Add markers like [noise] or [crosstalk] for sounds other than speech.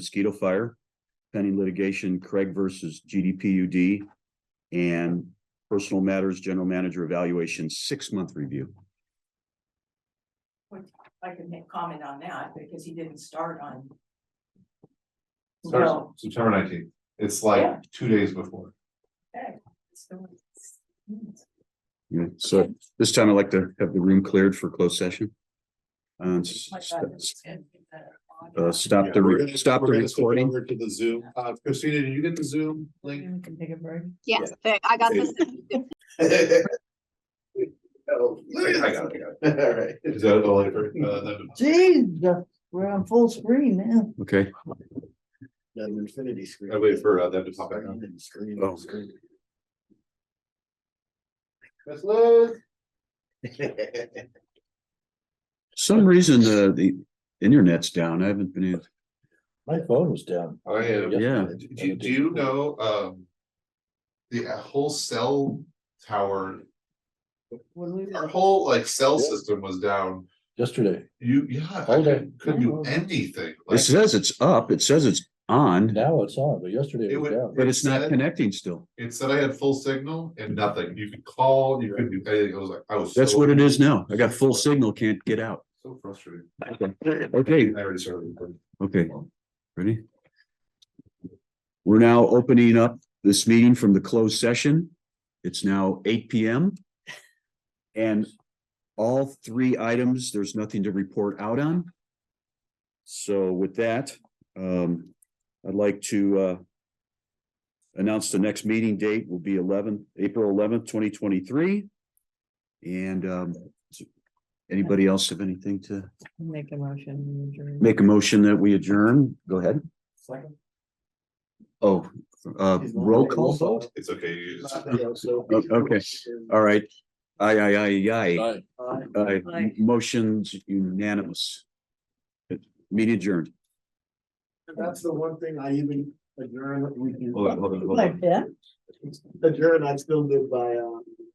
mosquito fire, pending litigation, Craig versus GDPUD, and personal matters, general manager evaluation, six-month review. I can make comment on that because he didn't start on. Starts September nineteenth. It's like Yeah. two days before. Yeah, so this time I'd like to have the room cleared for closed session. Um, s- s- uh, stop the, re- stop the recording. Over to the Zoom. Uh, Christina, did you get the Zoom link? can take a break. Yes, but I got Okay. this. Oh, Mm-hmm. I got it, I got it. All right. Is that the link for, uh, that? Jeez, we're on full screen now. Okay, An infinity screen. I wait for, uh, them to pop back on. Oh. Miss Liz? some reason the, the internet's down. I haven't been in. [laughs] My phone was down. I am. Yeah. Do, Oh, do- do you know, um, the uh, whole cell tower, our whole like cell Yeah. system was down. Yesterday, You, yeah, I All day. couldn't couldn't do anything. It Like, says it's up, it says it's on, now it's on, but yesterday It it was would- down. but it's not said- connecting still. It said I had full signal and nothing. You could call, you couldn't do anything. I was like, I was. That's so- what it is now. I got full signal, can't get out. So frustrated. Okay, I already started. recording. okay, ready? We're now opening up this meeting from the closed session. It's now eight P M. And all three items, there's nothing to report out on. So with that, um, I'd like to, uh, announce the next meeting date will be eleven, April eleventh, twenty twenty-three. And, um, anybody else have anything to? Make a motion. we adjourn. Make a motion that we adjourn. Go ahead. Oh, uh, roll call vote? [laughs] It's okay. you just- Okay. All right. Aye, aye, aye, Aye. aye. Uh, Aye. motion's unanimous. Meeting adjourned. That's the one thing I even adjourn, we Hold on, can hold on, hold My on. pen? adjourn, I still live by, uh,